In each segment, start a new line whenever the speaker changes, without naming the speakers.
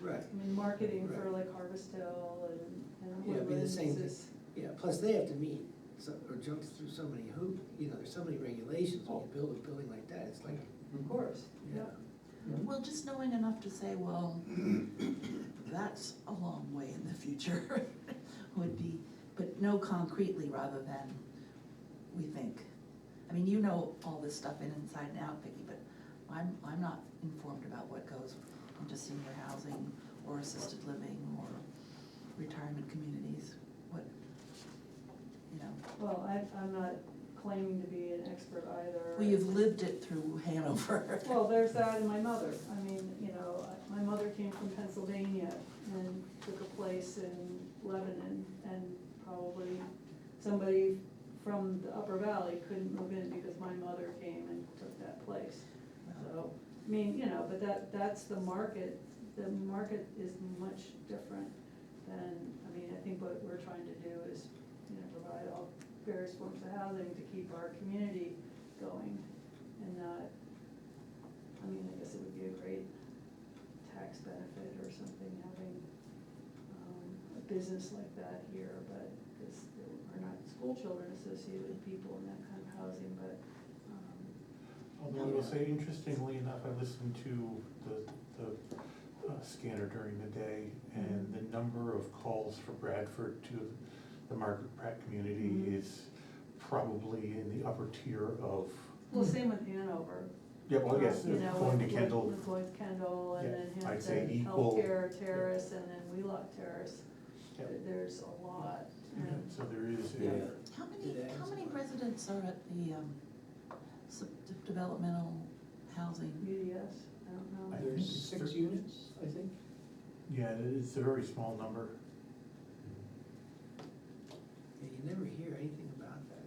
Right,
I mean, marketing for like Harvest Hill and, and
Yeah, it'd be the
Woodlands
same
is,
yeah, plus they have to meet, so, or jump through so many hoop, you know, there's so many regulations when you build a building like that, it's like,
of course,
Mm-hmm. yeah.
yeah.
Well, just knowing enough to say, well, that's a long way in the future would be, but know concretely rather than we think. I mean, you know all this stuff in inside and out, Vicky, but I'm, I'm not informed about what goes into senior housing or assisted living or retirement communities, what, you know.
Well, I, I'm not claiming to be an expert either.
Well, you've lived it through Hanover.
Well, there's that and my mother, I mean, you know, my mother came from Pennsylvania and took a place in Lebanon and probably somebody from the Upper Valley couldn't move in because my mother came and took that place. So, I mean, you know, but that, that's the market, the market is much different than, I mean, I think what we're trying to do is, you know, provide all various forms of housing to keep our community going and not, I mean, I guess it would be a great tax benefit or something, having, um, a business like that here, but, because there are not school children associated with people in that kind of housing, but, um,
Although I will say, interestingly enough, I listened to the, the uh, scanner during the day, and the number of calls for Bradford to the Margaret Pratt community
Mhm.
is probably in the upper tier of,
well, same with Hanover,
yeah, well, yes,
You know,
going to
with-
Kendall,
With Lloyd Kendall and
Yeah,
then
I'd say
Hampton
equal.
Healthcare Terrace and then Wheelock Terrace.
Yeah.
There- There's a lot.
yeah,
and-
so there is, a-
Yeah.
How many,
Did I
how
ask
many
about-
residents are at the, um, sub- developmental housing?
UDS, I don't know.
I think
There's
it's
six
thir-
units, I think.
yeah, it's a very small number.
Yeah, you never hear anything about that.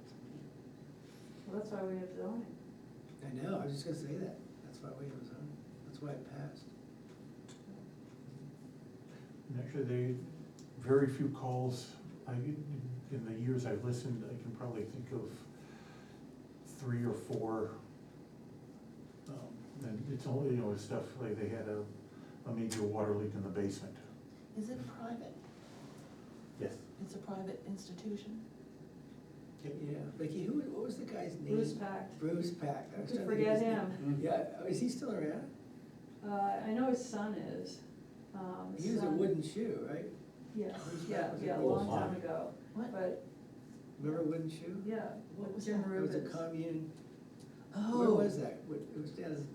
Well, that's why we have zoning.
I know, I was just gonna say that, that's why we was on, that's why it passed.
And Actually, they, very few calls, I, in the years I've listened, I can probably think of three or four. Um, And it's only, you know, it's stuff like they had a, a major water leak in the basement.
Is it private?
Yes.
It's a private institution?
Yeah, Vicky, who, what was the guy's name?
Bruce Pact.
Bruce Pack. I was
Could
trying to think of
forget
his name.
him.
Yeah, oh, is he still around?
Uh, I know his son is. um, his
He was a
son-
wooden shoe, right?
Yes,
Bruce
yeah,
Pact was a
yeah, a long
wooden
time
farm.
ago.
What?
But,
Remember wooden shoe?
yeah.
What was
Jim
that?
It was a
Rubens.
commune, where
Oh,
was that? What- It was down, in-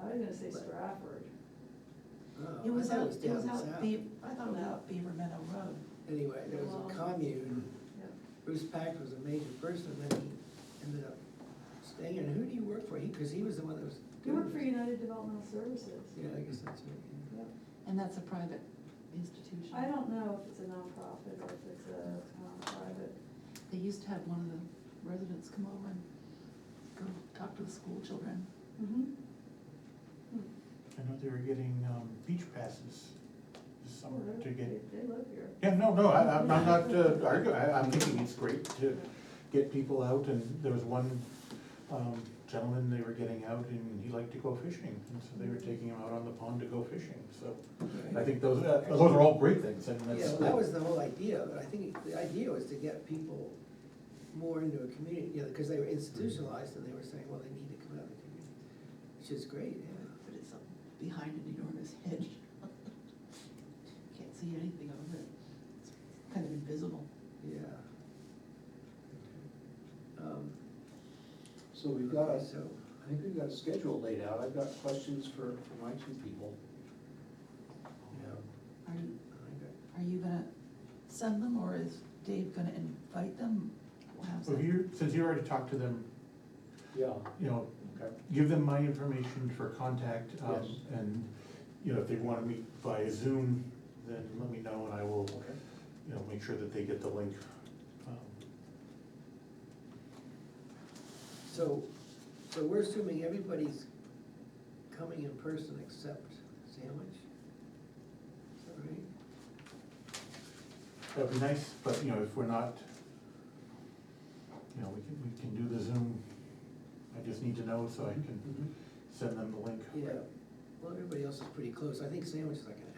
I was gonna say Stratford.
oh, I
it was
thought
out,
it was
it was
down
out,
south.
Be- I thought it was out Beaver Meadow Road.
Anyway, there was
Well-
a commune,
Yeah.
Bruce Pack was a major person, then he ended up staying, and who do you work for? He, cause he was the one that was.
He worked for
doing this.
United Developmental Services.
Yeah, I guess that's right. yeah.
Yeah.
And that's a private institution?
I don't know if it's a nonprofit or if it's a um, private.
They used to have one of the residents come over and go talk to the school children.
I know they were getting, um, beach passes this
Oh,
summer
they-
to get.
They they live here.
Yeah, no, no, I, I'm I'm not uh, arguing, I, I'm thinking it's great to get people out, and there was one, um, gentleman, they were getting out, and he liked to go fishing, and so they were taking him out on the pond to go fishing, so. I think those, uh, those are all great things, and
Yeah,
that's.
well, that was the whole idea, but I think the idea was to get people more into a community, you know, because they were institutionalized and they were saying, well, they need to come out of the community, which is great, yeah.
But it's up behind an enormous hedge. Can't see anything of it. It's kind of invisible.
Yeah. Um,
So we've got, a-
okay, So,
I think we've got a schedule laid out. I've got questions for, for my two people.
yeah,
Are you,
I got-
are you gonna send them or is Dave gonna invite them? How's
So
that?
if you, since you already talked to them,
Yeah.
you know,
Okay.
give them my information for contact, um,
Yes.
and, you know, if they wanna meet via Zoom, then let me know, and I will,
Okay.
you know, make sure that they get the link. Um,
so, so we're assuming everybody's coming in person except Sandwich? Is that right?
That'd be nice, but, you know, if we're not, you know, we can, we can do the Zoom. I just need to know so I can
Mhm.
send them the link.
Yeah, well, everybody else is pretty close, I think Sandwich is like an